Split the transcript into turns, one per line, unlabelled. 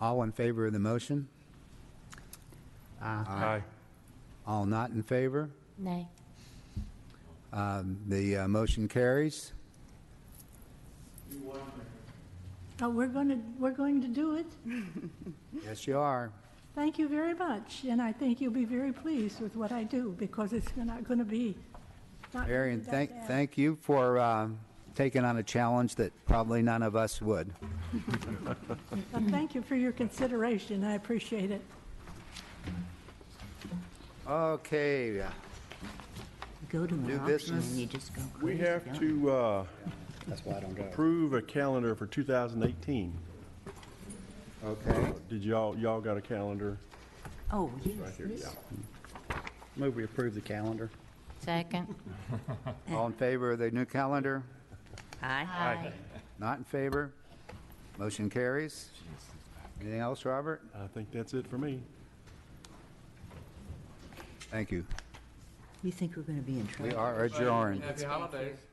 All in favor of the motion?
Aye.
All not in favor?
Nay.
Um, The uh, motion carries.
Oh, we're going to, we're going to do it.
Yes, you are.
Thank you very much, and I think you'll be very pleased with what I do, because it's not going to be. not gonna
Marion,
be that
thank,
bad.
thank you for uh, taking on a challenge that probably none of us would.
But thank you for your consideration, I appreciate it.
Okay, uh,
Go to an
New
auction
business?
and you just go
We
crazy.
have
don't
to uh,
That's why I don't go.
approve a calendar for 2018.
Okay.
Did y'all, y'all got a calendar?
Oh, yes, this.
Move we approve the calendar.
Second.
all in favor of the new calendar?
Aye.
Not in favor? Motion carries. Anything else, Robert?
I think that's it for me.
Thank you.
You think we're going to be in
We
trouble?
are adjourned.
Happy holidays.